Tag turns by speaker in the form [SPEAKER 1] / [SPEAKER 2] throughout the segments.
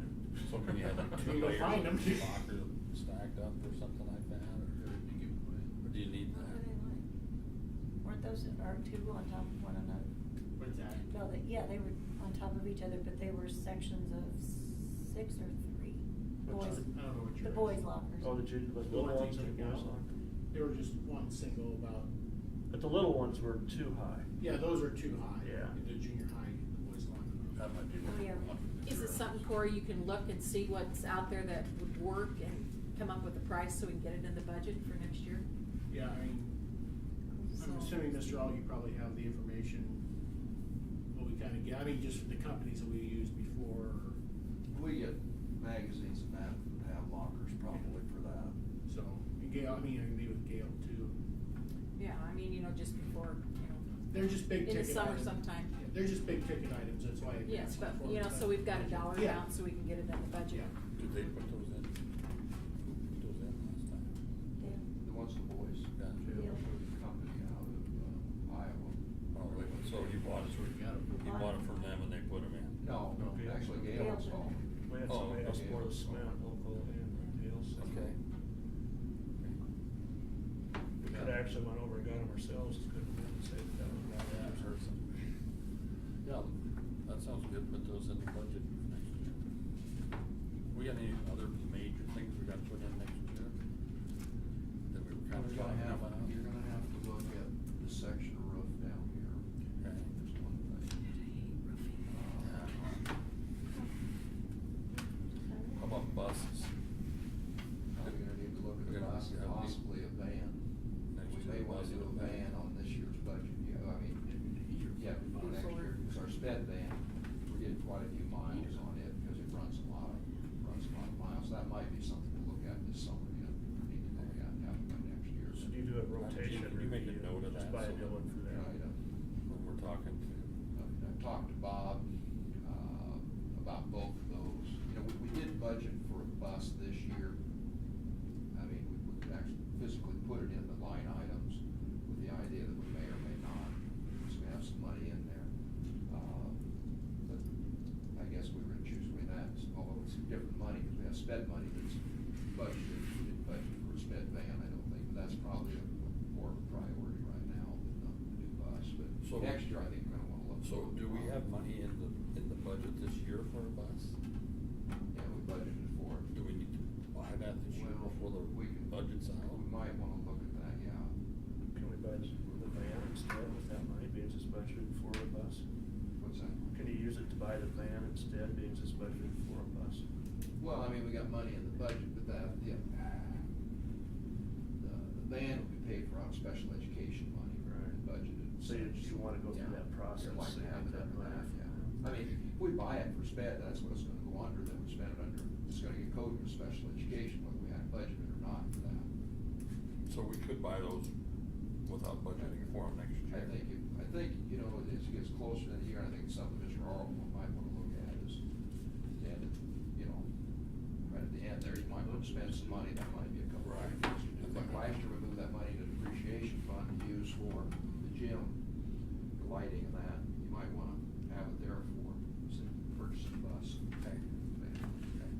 [SPEAKER 1] When you had like two
[SPEAKER 2] You go
[SPEAKER 1] layers
[SPEAKER 2] find
[SPEAKER 1] of
[SPEAKER 2] 'em.
[SPEAKER 1] locker stacked up or something like that, or
[SPEAKER 3] You give it away.
[SPEAKER 1] or do you need
[SPEAKER 4] What were
[SPEAKER 1] that?
[SPEAKER 4] they like? Weren't those, are two on top of one another?
[SPEAKER 2] What's that?
[SPEAKER 4] No, they, yeah, they were on top of each other, but they were sections of six or three.
[SPEAKER 2] What's
[SPEAKER 4] Boys,
[SPEAKER 2] that? I don't know what
[SPEAKER 4] the
[SPEAKER 2] you're-
[SPEAKER 4] boys' lockers.
[SPEAKER 5] Oh, the ju- the
[SPEAKER 2] Well,
[SPEAKER 5] little
[SPEAKER 2] I
[SPEAKER 5] ones
[SPEAKER 2] think
[SPEAKER 5] and the
[SPEAKER 2] they're
[SPEAKER 5] boys'
[SPEAKER 2] down.
[SPEAKER 5] locker.
[SPEAKER 2] They were just one single about,
[SPEAKER 5] But the little ones were too high.
[SPEAKER 2] yeah, those are too high.
[SPEAKER 5] Yeah.
[SPEAKER 2] The junior high, the boys locker.
[SPEAKER 1] That might be.
[SPEAKER 4] Oh, yeah.
[SPEAKER 1] one of
[SPEAKER 6] Is
[SPEAKER 1] the
[SPEAKER 6] it something,
[SPEAKER 1] materials.
[SPEAKER 6] Corey, you can look and see what's out there that would work and come up with a price so we can get it in the budget for next year?
[SPEAKER 2] Yeah, I mean, I'm
[SPEAKER 6] So-
[SPEAKER 2] assuming, Mr. All, you probably have the information, what we kinda get, I mean, just the companies that we used before,
[SPEAKER 3] We get magazines and that, that have lockers probably for that.
[SPEAKER 2] so, and Gail, I mean, I can be with Gail too.
[SPEAKER 6] Yeah, I mean, you know, just before, you know.
[SPEAKER 2] They're just big
[SPEAKER 6] In the
[SPEAKER 2] ticket
[SPEAKER 6] summer
[SPEAKER 2] items.
[SPEAKER 6] sometime.
[SPEAKER 2] Yeah, They're just big ticket items, that's why. I
[SPEAKER 6] Yes,
[SPEAKER 2] asked
[SPEAKER 6] but,
[SPEAKER 2] for
[SPEAKER 6] you know,
[SPEAKER 2] that.
[SPEAKER 6] so we've got a dollar
[SPEAKER 2] Yeah.
[SPEAKER 6] amount so we can get it in the budget.
[SPEAKER 2] Yeah.
[SPEAKER 1] Did they put those in? Who Put those in last time?
[SPEAKER 4] Yeah.
[SPEAKER 3] The ones the boys,
[SPEAKER 1] Yeah.
[SPEAKER 3] Jim, the company out of uh, Iowa.
[SPEAKER 1] Oh, wait, so he bought it,
[SPEAKER 2] So we got 'em.
[SPEAKER 1] he bought it from them and they put them in?
[SPEAKER 3] No,
[SPEAKER 5] No, Gail.
[SPEAKER 3] actually Gail
[SPEAKER 4] Gail.
[SPEAKER 3] installed.
[SPEAKER 5] We had
[SPEAKER 1] Oh,
[SPEAKER 5] somebody else
[SPEAKER 1] okay.
[SPEAKER 5] pour the cement, local and Dale said.
[SPEAKER 1] Okay.
[SPEAKER 5] We could actually went over and got them ourselves, couldn't we, and saved them.
[SPEAKER 1] Yeah, I've heard some. Yeah, that sounds good, put those in the budget for next year. We got any other major things we gotta put in next year? That we were
[SPEAKER 3] You're
[SPEAKER 1] kind of
[SPEAKER 3] gonna
[SPEAKER 1] talking
[SPEAKER 3] have,
[SPEAKER 1] about?
[SPEAKER 3] you're gonna have to look at the section of roof down here.
[SPEAKER 1] Okay.
[SPEAKER 3] There's one thing. Uh,
[SPEAKER 1] How about buses?
[SPEAKER 3] We're gonna need to look
[SPEAKER 1] We're
[SPEAKER 3] at
[SPEAKER 1] gonna
[SPEAKER 3] poss-
[SPEAKER 1] have to-
[SPEAKER 3] possibly a van.
[SPEAKER 1] Next
[SPEAKER 3] We
[SPEAKER 1] year,
[SPEAKER 3] may wanna do
[SPEAKER 1] possibly.
[SPEAKER 3] a van on this year's budget, you know, I mean, yeah, for next year, because our sped van, we're getting quite a few miles on it, because it runs a lot, of- runs a lot of miles. That might be something to look at this summer, you know, we need to look at, have it by next year.
[SPEAKER 5] So do you do a rotation?
[SPEAKER 1] Can you make a note of that
[SPEAKER 5] Just buy a
[SPEAKER 1] so
[SPEAKER 5] new
[SPEAKER 1] that-
[SPEAKER 5] one for
[SPEAKER 3] You know, you
[SPEAKER 5] that.
[SPEAKER 3] know,
[SPEAKER 1] When we're talking to,
[SPEAKER 3] I mean, I've talked to Bob, uh, about both of those. You know, we, we did budget for a bus this year. I mean, we, we could actually physically put it in the line items with the idea that we may or may not, so we have some money in there. Uh, But I guess we were gonna choose between that, although it's different money, because we have sped money that's budgeted, we didn't budget for a sped van, I don't think, but that's probably a more priority right now than the the new bus, but
[SPEAKER 1] So-
[SPEAKER 3] next year, I think we're gonna wanna look.
[SPEAKER 1] so do we have money in the, in the budget this year for a bus?
[SPEAKER 3] Yeah, we budgeted for it.
[SPEAKER 1] Do we need to buy that this year
[SPEAKER 3] Well,
[SPEAKER 1] before
[SPEAKER 3] we can-
[SPEAKER 1] the budget's out?
[SPEAKER 3] We might wanna look at that, yeah.
[SPEAKER 5] Can we buy this- the van instead with that money, being it's budgeted for a bus?
[SPEAKER 3] What's that?
[SPEAKER 5] Can you use it to buy the van instead, being it's budgeted for a bus?
[SPEAKER 3] Well, I mean, we got money in the budget, but that, yeah. The, the van will be paid for out of special education money,
[SPEAKER 5] Right.
[SPEAKER 3] budgeted.
[SPEAKER 5] So you- you wanna go through
[SPEAKER 3] Yeah.
[SPEAKER 5] that process,
[SPEAKER 3] Yeah, like
[SPEAKER 5] so you
[SPEAKER 3] half
[SPEAKER 5] get
[SPEAKER 3] it
[SPEAKER 5] that
[SPEAKER 3] under
[SPEAKER 5] money.
[SPEAKER 3] half, yeah. I mean, if we buy it for sped, that's what it's gonna go under, then we spend it under, it's gonna get coded for special education, whether we had budgeted or not for that.
[SPEAKER 1] So we could buy those without budgeting for them next
[SPEAKER 3] I
[SPEAKER 1] year?
[SPEAKER 3] think, if- I think, you know, as it gets closer to the year, I think something Mr. Arlen might wanna look at is, and, you know, right at the end there, you might wanna spend some money, that might be a couple of
[SPEAKER 1] Right.
[SPEAKER 3] things to do. Like last year, we moved that money to depreciation fund to use for the gym, the lighting and that, you might wanna have it there for, say, purchasing bus.
[SPEAKER 1] Okay.
[SPEAKER 3] Okay.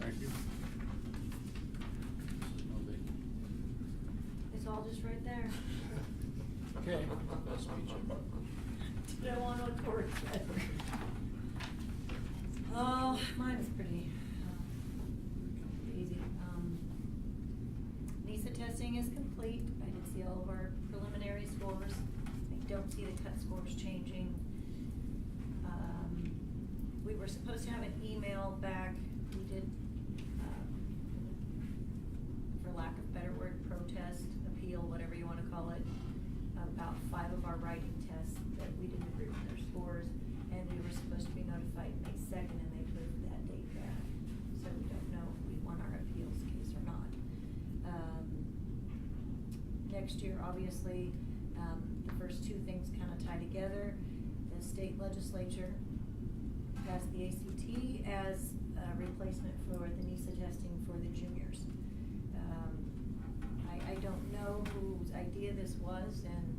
[SPEAKER 1] Thank you. This is no big-
[SPEAKER 4] It's all just right there.
[SPEAKER 1] Okay. Nice to meet you.
[SPEAKER 4] Don't want what Cory said. Oh, mine is pretty, uh, easy. Um, NISA testing is complete. I did see all of our preliminary scores. I don't see the cut scores changing. Um, We were supposed to have an email back. We did, um, for lack of better word, protest, appeal, whatever you wanna call it, about five of our writing tests that we didn't agree with their scores, and we were supposed to be notified May second, and they moved that date back. So we don't know if we won our appeals case or not. Um, Next year, obviously, um, the first two things kinda tie together. The state legislature passed the ACT as a replacement for the NISA testing for the juniors. Um, I, I don't know whose idea this was, and